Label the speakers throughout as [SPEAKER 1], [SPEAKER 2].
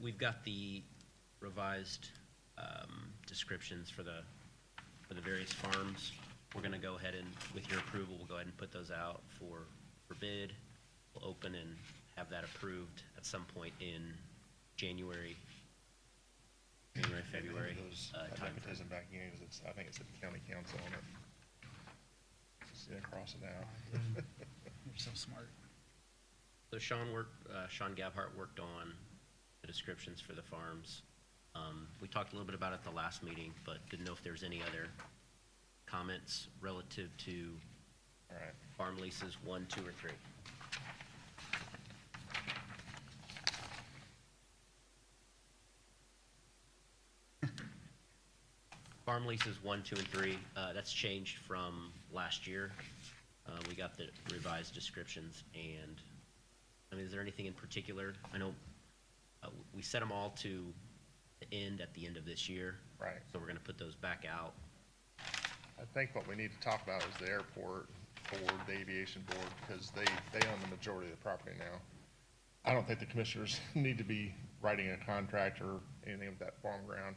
[SPEAKER 1] we've got the revised um, descriptions for the, for the various farms. We're going to go ahead and, with your approval, we'll go ahead and put those out for, for bid. We'll open and have that approved at some point in January, January, February
[SPEAKER 2] Those-
[SPEAKER 1] uh,
[SPEAKER 2] I think it
[SPEAKER 1] timeframe.
[SPEAKER 2] is in back here, 'cause it's, I think it's at the county council on it. See, I cross it out.
[SPEAKER 3] You're so smart.
[SPEAKER 1] So Sean worked, uh, Sean Gabhart worked on the descriptions for the farms. Um, we talked a little bit about it at the last meeting, but didn't know if there's any other comments relative to
[SPEAKER 2] All right.
[SPEAKER 1] farm leases one, two, or three. Farm leases one, two, and three, uh, that's changed from last year. Uh, we got the revised descriptions and, I mean, is there anything in particular? I know, uh, we set them all to the end at the end of this year.
[SPEAKER 2] Right.
[SPEAKER 1] So we're gonna put those back out.
[SPEAKER 2] I think what we need to talk about is the airport board, the aviation board, because they, they own the majority of the property now. I don't think the commissioners need to be writing a contract or anything with that farm ground.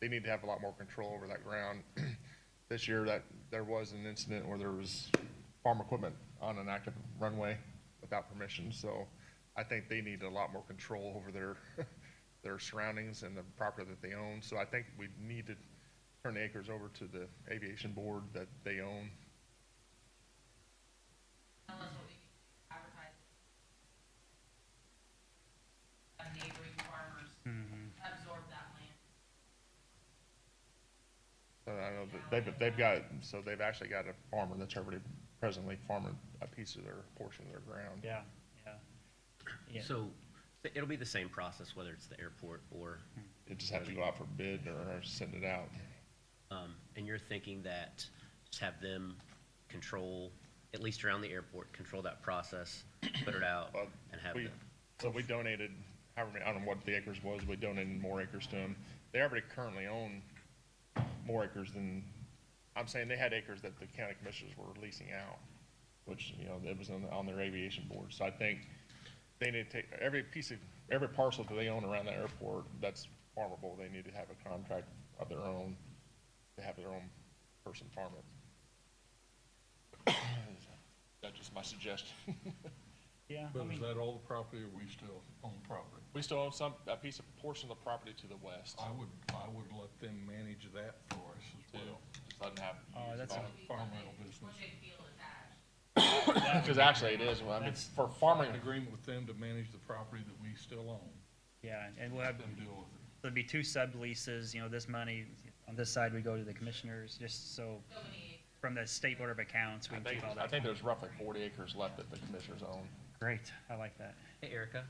[SPEAKER 2] They need to have a lot more control over that ground. This year, that, there was an incident where there was farm equipment on an active runway without permission, so I think they need a lot more control over their, their surroundings and the property that they own. So I think we need to turn the acres over to the aviation board that they own.
[SPEAKER 4] Tell us what we can advertise. Have neighboring farmers absorb that land.
[SPEAKER 2] So I know that they've, they've got, so they've actually got a farmer that's already presently farming a piece of their, portion of their ground.
[SPEAKER 3] Yeah, yeah. Yeah.
[SPEAKER 1] So it'll be the same process, whether it's the airport or
[SPEAKER 2] It just had to go out for bid or send it out.
[SPEAKER 1] Um, and you're thinking that just have them control, at least around the airport, control that process, put it out
[SPEAKER 2] Well,
[SPEAKER 1] and have
[SPEAKER 2] we-
[SPEAKER 1] them.
[SPEAKER 2] So we donated, however, many- I don't know what the acres was, we donated more acres to them. They already currently own more acres than, I'm saying they had acres that the county commissioners were leasing out, which, you know, that was on, on their aviation board. So I think they need to take, every piece of, every parcel that they own around the airport that's farmable, they need to have a contract of their own, to have their own person farm it. That's just my suggestion.
[SPEAKER 3] Yeah, I
[SPEAKER 5] But is
[SPEAKER 3] mean,
[SPEAKER 5] that all the property or we still own property?
[SPEAKER 2] We still own some, a piece of, portion of the property to the west.
[SPEAKER 5] I would, I would let them manage that for us as well.
[SPEAKER 2] Just doesn't have.
[SPEAKER 3] Oh, that's a-
[SPEAKER 5] Farm rental business.
[SPEAKER 4] What they feel attached.
[SPEAKER 2] Because actually it is, well, I mean,
[SPEAKER 3] That's-
[SPEAKER 2] for farming,
[SPEAKER 5] An agreement with them to manage the property that we still own,
[SPEAKER 3] yeah, and- and we'll have,
[SPEAKER 5] let them deal with it.
[SPEAKER 3] there'll be two subleases, you know, this money, on this side, we go to the commissioners, just so,
[SPEAKER 4] So many,
[SPEAKER 3] from the state board of accounts, we
[SPEAKER 2] I
[SPEAKER 3] can
[SPEAKER 2] think,
[SPEAKER 3] keep all
[SPEAKER 2] I
[SPEAKER 3] that.
[SPEAKER 2] think there's roughly forty acres left that the commissioners own.
[SPEAKER 3] Great, I like that.
[SPEAKER 1] Hey Erica,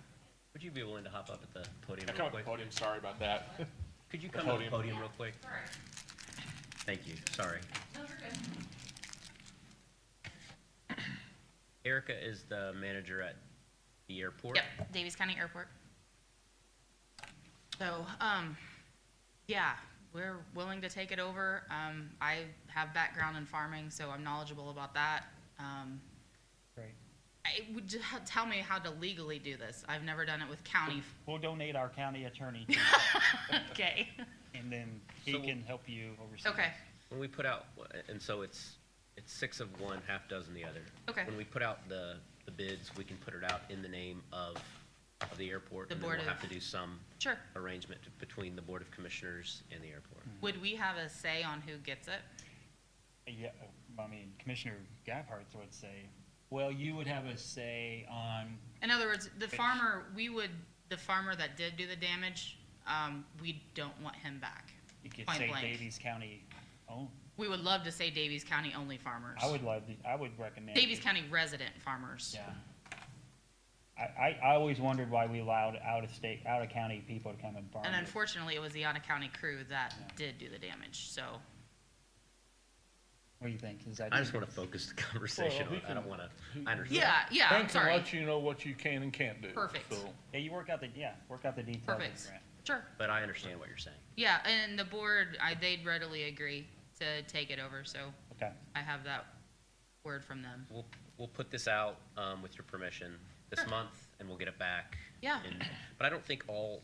[SPEAKER 1] would you be willing to hop up at the podium
[SPEAKER 2] Yeah,
[SPEAKER 1] real
[SPEAKER 2] Come up to the
[SPEAKER 1] quick?
[SPEAKER 2] podium, sorry about that.
[SPEAKER 1] Could you
[SPEAKER 2] the
[SPEAKER 1] come to the
[SPEAKER 2] podium.
[SPEAKER 1] podium real quick?
[SPEAKER 4] sorry,
[SPEAKER 1] Thank you, sorry.
[SPEAKER 4] no, you're good.
[SPEAKER 1] Erica is the manager at the airport.
[SPEAKER 6] Yep, Davies County Airport. So, um, yeah, we're willing to take it over. Um, I have background in farming, so I'm knowledgeable about that. Um,
[SPEAKER 3] Great.
[SPEAKER 6] I would just ha- tell me how to legally do this. I've never done it with county. f-
[SPEAKER 3] We'll donate our county attorney, to you,
[SPEAKER 6] Okay.
[SPEAKER 3] and then he
[SPEAKER 1] So-
[SPEAKER 3] can help you oversee.
[SPEAKER 6] Okay.
[SPEAKER 1] When we put out, and so it's, it's six of one, half dozen the other.
[SPEAKER 6] Okay.
[SPEAKER 1] When we put out the, the bids, we can put it out in the name of, of the airport.
[SPEAKER 6] The
[SPEAKER 1] and then
[SPEAKER 6] Board
[SPEAKER 1] We'll have to
[SPEAKER 6] of-
[SPEAKER 1] do some
[SPEAKER 6] Sure.
[SPEAKER 1] arrangement between the Board of Commissioners and the airport.
[SPEAKER 6] Would we have a say on who gets it?
[SPEAKER 3] Yeah, I mean, Commissioner Gabhart would say, well, you would have a say on,
[SPEAKER 6] In other words, the farmer, we would, the farmer that did do the damage, um, we don't want him back.
[SPEAKER 3] you could
[SPEAKER 6] Point
[SPEAKER 3] say
[SPEAKER 6] blank.
[SPEAKER 3] Davies County own.
[SPEAKER 6] We would love to say Davies County only farmers.
[SPEAKER 3] I would love, the- I would recommend.
[SPEAKER 6] Davies
[SPEAKER 3] it.
[SPEAKER 6] County resident farmers.
[SPEAKER 3] Yeah. I, I, I always wondered why we allowed out of state, out of county people to come and farm.
[SPEAKER 6] And
[SPEAKER 3] it.
[SPEAKER 6] unfortunately, it was the Otter County crew that
[SPEAKER 3] Yeah.
[SPEAKER 6] did do the damage, so.
[SPEAKER 3] What do you think? Is that?
[SPEAKER 1] I just want to focus the conversation
[SPEAKER 5] Well, he
[SPEAKER 1] on, I don't
[SPEAKER 5] can-
[SPEAKER 1] want to,
[SPEAKER 5] he-
[SPEAKER 1] I understand.
[SPEAKER 6] Yeah, yeah,
[SPEAKER 5] They
[SPEAKER 6] I'm
[SPEAKER 5] can
[SPEAKER 6] sorry.
[SPEAKER 5] Let you know what you can and can't do.
[SPEAKER 6] Perfect.
[SPEAKER 5] so.
[SPEAKER 3] Yeah, you work out the, yeah, work out the details of the
[SPEAKER 6] Perfect.
[SPEAKER 3] grant.
[SPEAKER 6] Sure.
[SPEAKER 1] But I understand what you're saying.
[SPEAKER 6] Yeah, and the board, I, they'd readily agree to take it over, so
[SPEAKER 3] Okay,
[SPEAKER 6] I have that word from them.
[SPEAKER 1] We'll, we'll put this out, um, with your permission this
[SPEAKER 6] Sure.
[SPEAKER 1] month and we'll get it back.
[SPEAKER 6] Yeah.
[SPEAKER 1] in- But I don't think all,